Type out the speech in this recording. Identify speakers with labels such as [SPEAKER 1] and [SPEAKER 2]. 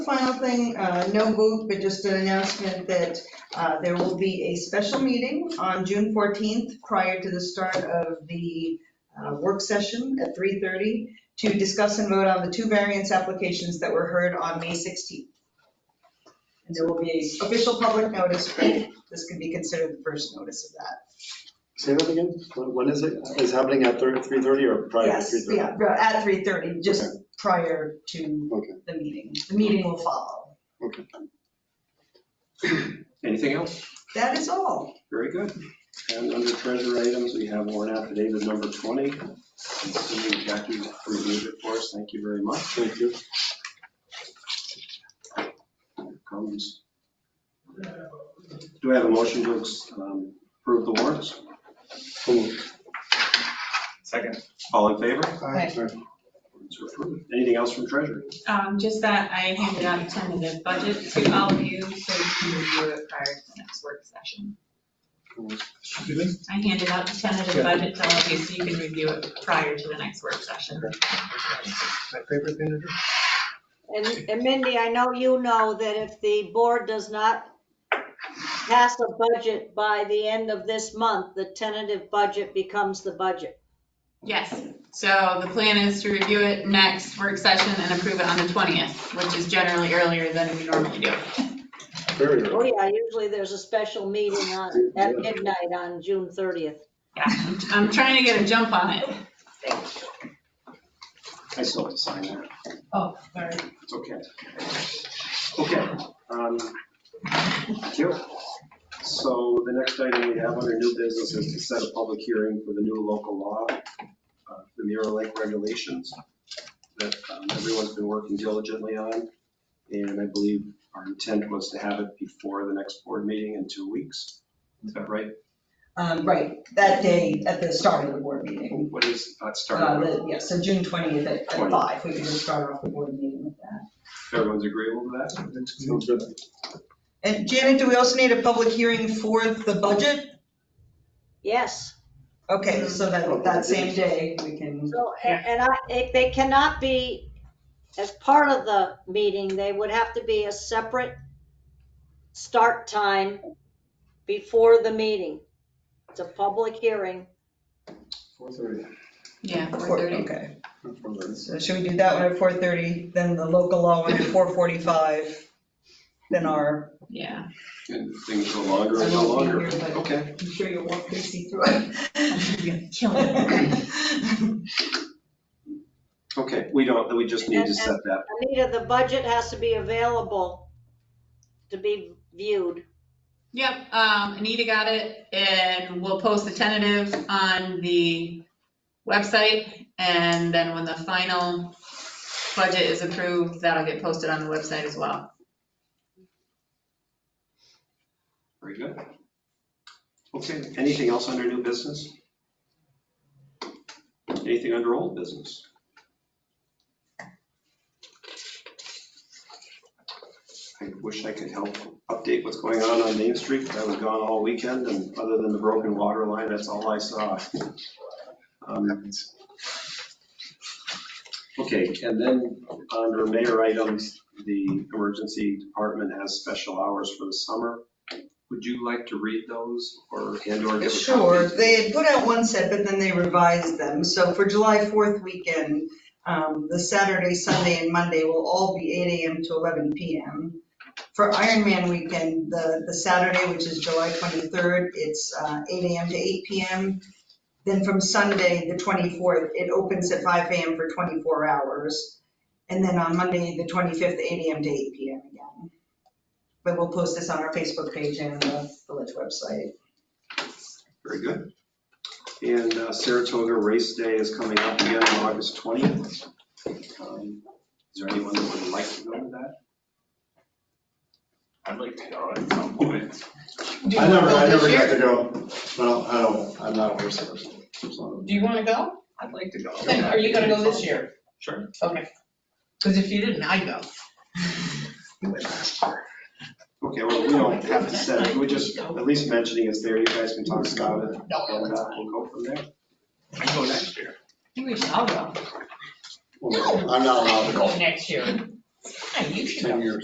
[SPEAKER 1] Final thing, uh, no move, but just an announcement that uh, there will be a special meeting on June 14th prior to the start of the uh, work session at 3:30 to discuss and vote on the two variance applications that were heard on May 16th. And there will be a official public notice, but this could be considered the first notice of that.
[SPEAKER 2] Say that again? When when is it? Is happening at 3:30 or prior to
[SPEAKER 1] Yes,
[SPEAKER 2] 3:30?
[SPEAKER 1] yeah, at 3:30, just prior to
[SPEAKER 2] Okay.
[SPEAKER 1] the meeting. The meeting will follow.
[SPEAKER 3] Anything else?
[SPEAKER 1] That is all.
[SPEAKER 3] Very good. And under treasure items, we have warrant affidavit number 20. Assuming Jackie reviewed it for us, thank you very much.
[SPEAKER 2] Thank you.
[SPEAKER 3] Comments? Do I have a motion to um, approve the warrants?
[SPEAKER 2] So moved.
[SPEAKER 4] Second.
[SPEAKER 3] All in favor?
[SPEAKER 1] Aye.
[SPEAKER 3] Warrants are approved. Anything else from treasury?
[SPEAKER 5] Um, just that I handed out a tentative budget to all of you, so you can review it prior to the next work session. I handed out the tentative budget to all of you, so you can review it prior to the next work session.
[SPEAKER 4] My favorite thing to do.
[SPEAKER 6] And and Mindy, I know you know that if the board does not pass a budget by the end of this month, the tentative budget becomes the budget.
[SPEAKER 5] Yes, so the plan is to review it next work session and approve it on the 20th, which is generally earlier than we normally do.
[SPEAKER 2] Very
[SPEAKER 6] Oh,
[SPEAKER 2] early.
[SPEAKER 6] yeah, usually there's a special meeting on, at midnight on June 30th.
[SPEAKER 5] Yeah, I'm trying to get a jump on it.
[SPEAKER 3] I still have to sign that.
[SPEAKER 5] Oh, sorry.
[SPEAKER 3] It's okay. Okay. um, Thank you. So the next item we have under new business is to set a public hearing for the new local law, uh, the Mirror Lake regulations that um, everyone's been working diligently on. And I believe our intent was to have it before the next board meeting in two weeks. Is that right?
[SPEAKER 1] Um, Right, that day at the start of the board meeting.
[SPEAKER 3] What is, that
[SPEAKER 1] Uh,
[SPEAKER 3] starting with?
[SPEAKER 1] the- Yeah, so June 20th at at
[SPEAKER 3] 20th.
[SPEAKER 1] 5, we could just start off the board meeting with that.
[SPEAKER 3] Everyone's agreeable to that?
[SPEAKER 2] Sounds good.
[SPEAKER 1] And Janet, do we also need a public hearing for the budget?
[SPEAKER 6] Yes,
[SPEAKER 1] Okay, so that, that same day, we can,
[SPEAKER 6] so, a- and I, if they cannot be as part of the meeting, they would have to be a separate start time before the meeting. It's a public hearing.
[SPEAKER 2] 4:30.
[SPEAKER 5] Yeah,
[SPEAKER 1] four-
[SPEAKER 5] 4:30.
[SPEAKER 1] okay.
[SPEAKER 2] 4:30.
[SPEAKER 1] So should we do that one at 4:30, then the local law one at 4:45, then our,
[SPEAKER 5] Yeah.
[SPEAKER 3] And things go longer
[SPEAKER 1] I
[SPEAKER 3] and go
[SPEAKER 1] won't be
[SPEAKER 3] longer.
[SPEAKER 1] here, but-
[SPEAKER 3] Okay.
[SPEAKER 1] I'm sure you'll walk Casey through it.
[SPEAKER 5] Kill it.
[SPEAKER 3] Okay, we don't, we just need to set that
[SPEAKER 6] Anita, the budget has to be available to be viewed.
[SPEAKER 5] Yep, um, Anita got it, and we'll post the tentative on the website, and then when the final budget is approved, that'll get posted on the website as well.
[SPEAKER 3] Very good. Okay, anything else under new business? Anything under old business? I wish I could help update what's going on on Main Street. I was gone all weekend and other than the broken water line, that's all I saw. Um, Okay, and then under mayor items, the emergency department has special hours for the summer. Would you like to read those or and or give a copy?
[SPEAKER 1] Sure, they had put out one set, but then they revised them. So for July 4th weekend, um, the Saturday, Sunday, and Monday will all be 8 AM to 11 PM. For Ironman weekend, the, the Saturday, which is July 23rd, it's uh, 8 AM to 8 PM. Then from Sunday, the 24th, it opens at 5 AM for 24 hours. And then on Monday, the 25th, 8 AM to 8 PM again. But we'll post this on our Facebook page and the village website.
[SPEAKER 3] Very good. And uh, Saratoga Race Day is coming up again on August 20th. Um, Is there anyone that would like to go to that?
[SPEAKER 4] I'd like to go at some point.
[SPEAKER 7] Do
[SPEAKER 2] I
[SPEAKER 7] you
[SPEAKER 2] never, I
[SPEAKER 7] wanna go
[SPEAKER 2] never
[SPEAKER 7] this
[SPEAKER 2] got
[SPEAKER 7] year?
[SPEAKER 2] to go. Well, I don't, I'm not a horse person. so-
[SPEAKER 7] Do you wanna go?
[SPEAKER 4] I'd like to go.
[SPEAKER 7] Then are you gonna go this year?
[SPEAKER 4] Sure.
[SPEAKER 7] Okay. Cause if you didn't, I'd go.
[SPEAKER 3] Okay, well, we don't have to set it, we're just at least mentioning it's there, you guys can talk about it. And uh, we'll go from there.
[SPEAKER 4] I can go next year.
[SPEAKER 5] I think we should all go.
[SPEAKER 2] Well, I'm not allowed to go.
[SPEAKER 7] next year.
[SPEAKER 8] fine, you should go.
[SPEAKER 7] Ten years.